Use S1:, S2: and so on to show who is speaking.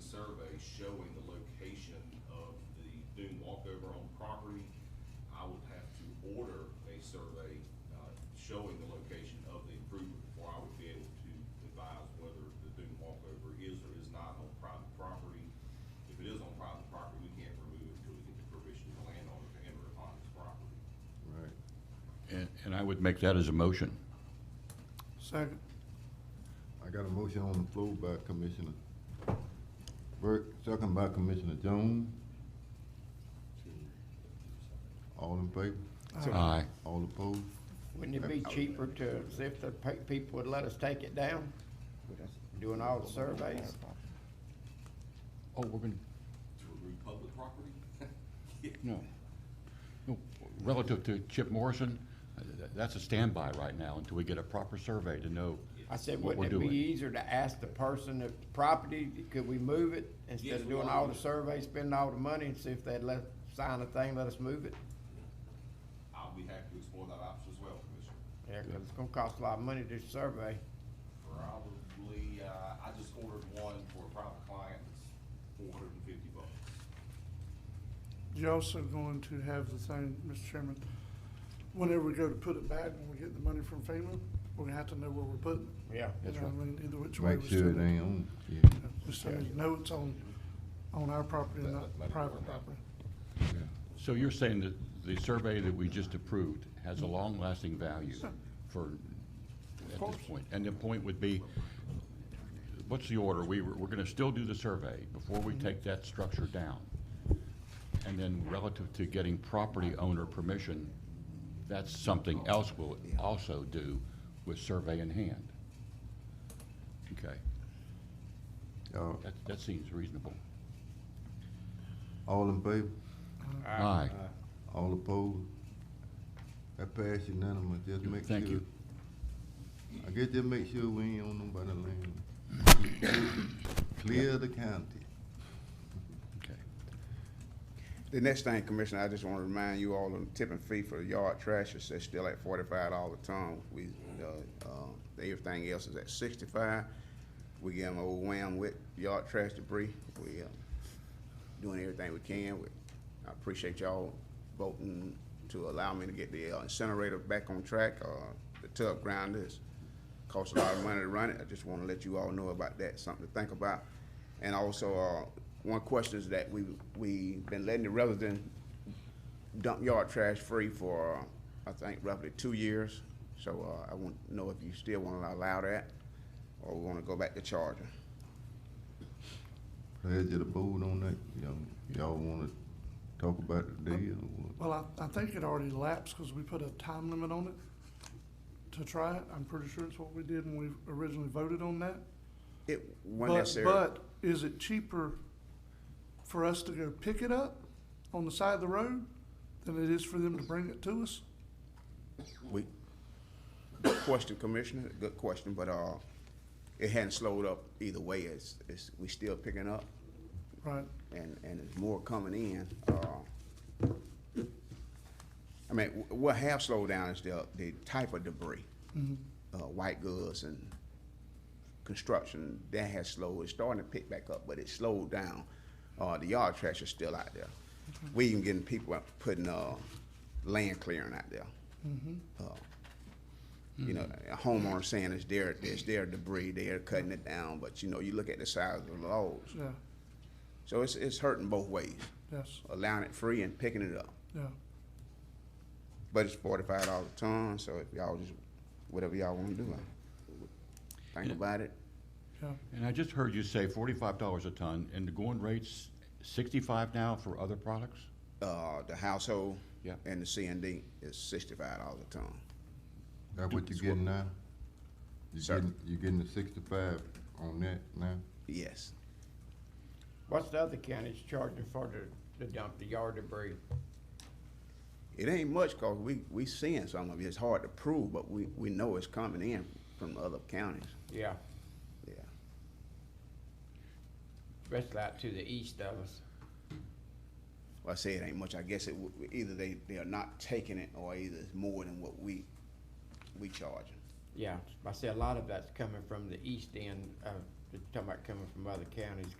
S1: survey showing the location of the dune walkover on property, I would have to order a survey, uh, showing the location of the improvement before I would be able to advise whether the dune walkover is or is not on private property. If it is on private property, we can't remove it until we get the permission of the landowner to enter upon his property.
S2: Right.
S3: And, and I would make that as a motion.
S4: Second.
S2: I got a motion on the floor by Commissioner Burke, second by Commissioner Jones. All in favor?
S3: Aye.
S2: All opposed?
S5: Wouldn't it be cheaper to, see if the pe- people would let us take it down, doing all the surveys?
S3: Oh, we're gonna,
S1: To remove public property?
S3: no. No, Relative to Chip Morrison, uh, th- that's a standby right now until we get a proper survey to know.
S5: I said,
S3: What we're
S5: wouldn't it be
S3: doing.
S5: easier to ask the person if the property, could we move it?
S1: Yes,
S5: Instead of
S1: we
S5: doing
S1: are.
S5: all the surveys, spending all the money, and see if they'd let, sign a thing, let us move it?
S1: I'll be happy to explore that option as well, Commissioner.
S5: Yeah, 'cause it's gonna cost a lot of money to survey.
S1: Probably, uh, I just ordered one for a private client, it's four hundred and fifty bucks.
S4: You're also going to have the thing, Mr. Chairman, whenever we go to put it back, when we get the money from FEMA, we're gonna have to know where we're putting it.
S5: Yeah.
S4: You know what I mean, either which way.
S2: Make
S4: we
S2: sure it
S4: send
S2: ain't on, yeah.
S4: We still need to know it's on, on our property and not private property.
S3: So you're saying that the survey that we just approved has a long-lasting value for, at this point? And the point would be, what's the order? We, were- we're gonna still do the survey before we take that structure down. And then relative to getting property owner permission, that's something else we'll also do with survey in hand. Okay,
S2: Y'all,
S3: that, that seems reasonable.
S2: all in favor?
S3: Aye.
S2: All opposed? That passed unanimous, just make sure.
S3: Thank you.
S2: I guess just make sure we ain't on nobody land. Clear the county.
S3: Okay.
S6: The next thing, Commissioner, I just want to remind you all, on the tipping fee for the yard trash is is still at forty-five dollars a ton. We, uh, uh, everything else is at sixty-five. We give them a wham with yard trash debris. We, uh, doing everything we can. We- I appreciate y'all voting to allow me to get the uh, incinerator back on track. Uh, the tub grinder is, costs a lot of money to run it. I just want to let you all know about that, something to think about. And also, uh, one question is that we, we been letting the resident dump yard trash free for, uh, I think roughly two years. So, uh, I want to know if you still want to allow that, or we want to go back to charging.
S2: Pledge of the board on that, y'all, y'all wanna talk about the deal or what?
S4: Well, I, I think it already lapsed because we put a time limit on it to try it. I'm pretty sure it's what we did when we originally voted on that.
S6: It wasn't
S4: But-
S6: necessarily.
S4: But is it cheaper for us to go pick it up on the side of the road than it is for them to bring it to us?
S6: We, good question, Commissioner, good question, but, uh, it hadn't slowed up either way, it's, it's, we still picking up,
S4: Right,
S6: and, and there's more coming in, uh. I mean, wh- what have slowed down is the, uh, the type of debris, uh, white goods and construction, that has slowed, it's starting to pick back up, but it slowed down. Uh, the yard trash is still out there, we even getting people out putting, uh, land clearing out there. Uh,
S5: Mm-hmm.
S6: you know, a homeowner saying it's their, it's their debris, they're cutting it down, but you know, you look at the size of the loads.
S4: yeah,
S6: So it's, it's hurting both ways,
S4: yes,
S6: allowing it free and picking it up.
S4: yeah.
S6: But it's forty-five dollars a ton, so if y'all just, whatever y'all wanna do, I think about it.
S3: And I just heard you say forty-five dollars a ton, and the going rate's sixty-five now for other products?
S6: Uh, the household
S3: Yeah.
S6: and the C and D is sixty-five dollars a ton.
S2: That what you getting now? You
S6: Sir.
S2: getting, you getting the sixty-five on that now?
S6: Yes.
S5: What's the other counties charging for to, to dump the yard debris?
S6: It ain't much, cause we, we seeing some of it. It's hard to prove, but we, we know it's coming in from other counties,
S5: Yeah,
S6: yeah.
S5: especially out to the east of us.
S6: Well, I say it ain't much. I guess it, w- either they, they are not taking it or either it's more than what we, we charging.
S5: Yeah, I see a lot of that's coming from the east end, uh, talking about coming from other counties,